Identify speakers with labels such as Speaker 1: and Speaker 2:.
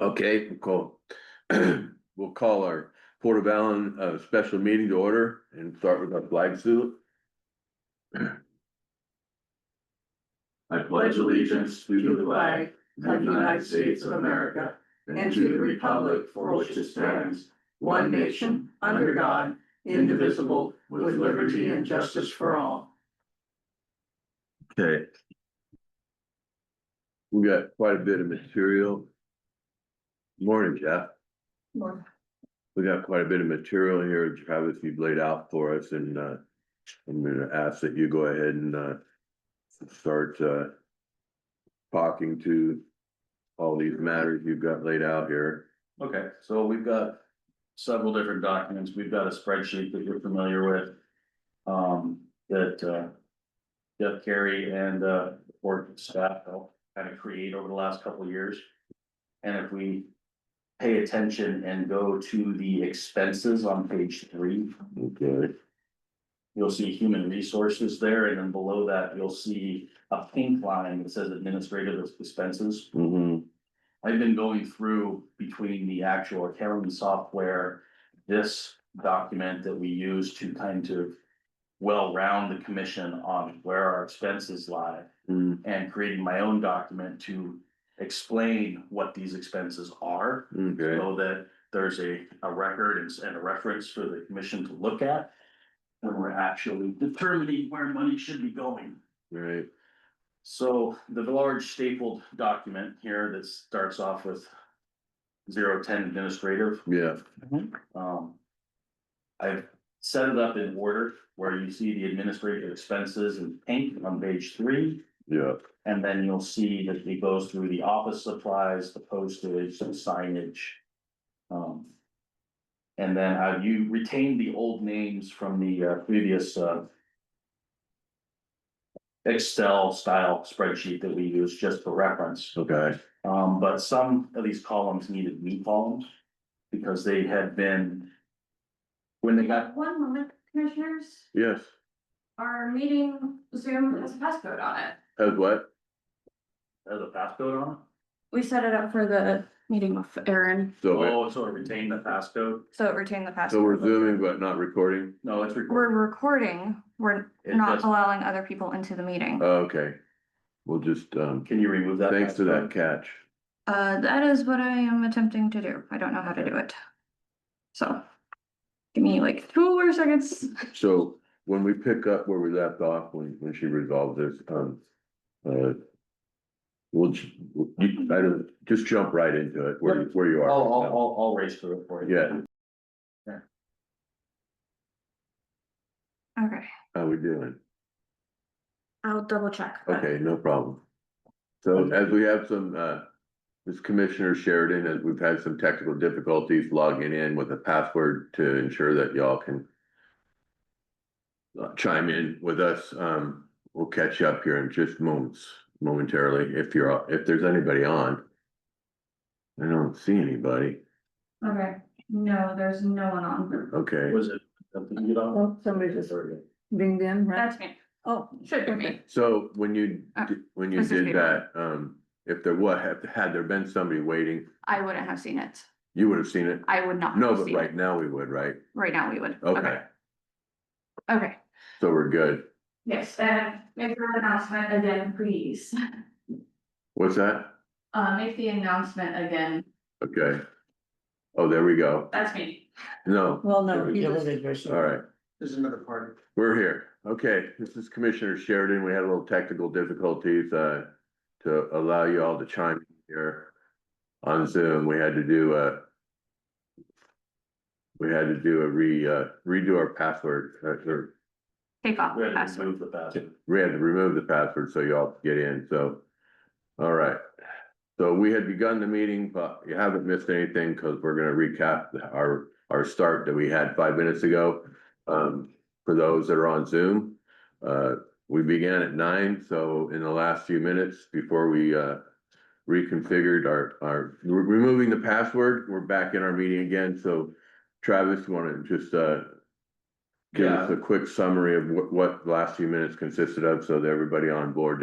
Speaker 1: Okay, we'll call, we'll call our Port of Allen, uh, special meeting to order and start with our flag salute. I
Speaker 2: pledge allegiance to the flag of the United States of America and to the republic for which it stands, one nation, under God, indivisible, with liberty and justice for all.
Speaker 1: Okay. We got quite a bit of material. Morning, Jeff. We got quite a bit of material here, Travis, you've laid out for us and, uh, I'm gonna ask that you go ahead and, uh, start, uh, talking to all these matters you've got laid out here.
Speaker 2: Okay, so we've got several different documents. We've got a spreadsheet that you're familiar with. Um, that, uh. Jeff Carey and, uh, board staff helped kind of create over the last couple of years. And if we pay attention and go to the expenses on page three.
Speaker 1: Okay.
Speaker 2: You'll see human resources there, and then below that, you'll see a pink line that says administrative expenses.
Speaker 1: Mm-hmm,
Speaker 2: I've been going through between the actual accounting software, this document that we use to kind of. Well, round the commission on where our expenses lie
Speaker 1: Mm-hmm.
Speaker 2: and creating my own document to explain what these expenses are.
Speaker 1: okay,
Speaker 2: So that there's a, a record and s- and a reference for the commission to look at. When we're actually determining where money should be going.
Speaker 1: right,
Speaker 2: So the large stapled document here that starts off with. Zero ten administrative,
Speaker 1: yeah,
Speaker 2: um. I've set it up in order where you see the administrative expenses in pink on page three.
Speaker 1: yeah,
Speaker 2: And then you'll see that it goes through the office supplies, the postage, the signage. Um. And then have you retained the old names from the uh, previous uh. Excel style spreadsheet that we use just for reference.
Speaker 1: okay,
Speaker 2: Um, but some of these columns needed new columns. Because they had been. When they got,
Speaker 3: One moment, commissioners,
Speaker 1: yes,
Speaker 3: our meeting Zoom has a passcode on it.
Speaker 1: as what?
Speaker 2: uh, the passcode on,
Speaker 3: We set it up for the meeting with Aaron,
Speaker 1: So, it-
Speaker 2: oh, so it retained the passcode,
Speaker 3: so it retained the passcode.
Speaker 1: so we're zooming but not recording,
Speaker 2: no, it's
Speaker 3: We're
Speaker 2: recorded.
Speaker 3: recording, we're
Speaker 2: It
Speaker 3: not
Speaker 2: doesn't-
Speaker 3: allowing other people into the meeting.
Speaker 1: Oh, okay. We'll just, um,
Speaker 2: Can you remove that?
Speaker 1: thanks to that
Speaker 2: passcode?
Speaker 1: catch,
Speaker 3: Uh, that is what I am attempting to do, I don't know how to do it. So, give me like two more seconds.
Speaker 1: so when we pick up where we left off, when, when she resolved this, um, uh. We'll, ju- you, I don't, just jump right into it, where, where you are.
Speaker 2: I'll, I'll,
Speaker 1: right now.
Speaker 2: I'll, I'll race through it for you.
Speaker 1: Yeah,
Speaker 3: Okay,
Speaker 1: how we doing?
Speaker 3: I'll double check. but-
Speaker 1: Okay, no problem. So as we have some, uh, this Commissioner Sheridan, as we've had some technical difficulties logging in with a password to ensure that y'all can uh, chime in with us. Um, we'll catch you up here in just moments, momentarily, if you're, if there's anybody on. I don't see anybody.
Speaker 3: Okay, no, there's no one on.
Speaker 1: Okay,
Speaker 2: Was it? did you get off?
Speaker 4: Well, somebody just dinged in, right?
Speaker 3: That's me,
Speaker 4: Oh,
Speaker 3: should be me.
Speaker 1: so when you,
Speaker 3: Uh,
Speaker 1: di- when you
Speaker 3: this is
Speaker 1: did
Speaker 3: Peter.
Speaker 1: that, um, if there was, had- had there been somebody waiting,
Speaker 3: I wouldn't have seen it,
Speaker 1: you would have seen it.
Speaker 3: I would not.
Speaker 1: No,
Speaker 3: have
Speaker 1: but
Speaker 3: seen it.
Speaker 1: right now we would, right?
Speaker 3: Right now, we would.
Speaker 1: Okay,
Speaker 3: Okay,
Speaker 1: so we're good.
Speaker 3: yes, and make the announcement again, please.
Speaker 1: What's that?
Speaker 3: Uh, make the announcement again.
Speaker 1: Okay. Oh, there we go.
Speaker 3: That's me.
Speaker 1: No,
Speaker 4: well,
Speaker 1: There
Speaker 4: no,
Speaker 1: we
Speaker 4: he
Speaker 1: go.
Speaker 4: was,
Speaker 1: all right,
Speaker 2: There's another part.
Speaker 1: we're here. Okay, this is Commissioner Sheridan. We had a little technical difficulties, uh, to allow you all to chime in here. On Zoom, we had to do a we had to do a re, uh, redo our password, uh, or
Speaker 3: Take off
Speaker 2: We
Speaker 3: the
Speaker 2: had to
Speaker 3: password.
Speaker 2: remove the password.
Speaker 1: we had to remove the password so y'all could get in, so. All right, so we had begun the meeting, but you haven't missed anything, cause we're gonna recap the- our, our start that we had five minutes ago. Um, for those that are on Zoom, uh, we began at nine, so in the last few minutes before we, uh. Reconfigured our, our, we're removing the password, we're back in our meeting again, so Travis, you wanna just, uh. Give us a quick summary of what, what the last few minutes consisted of, so that everybody on board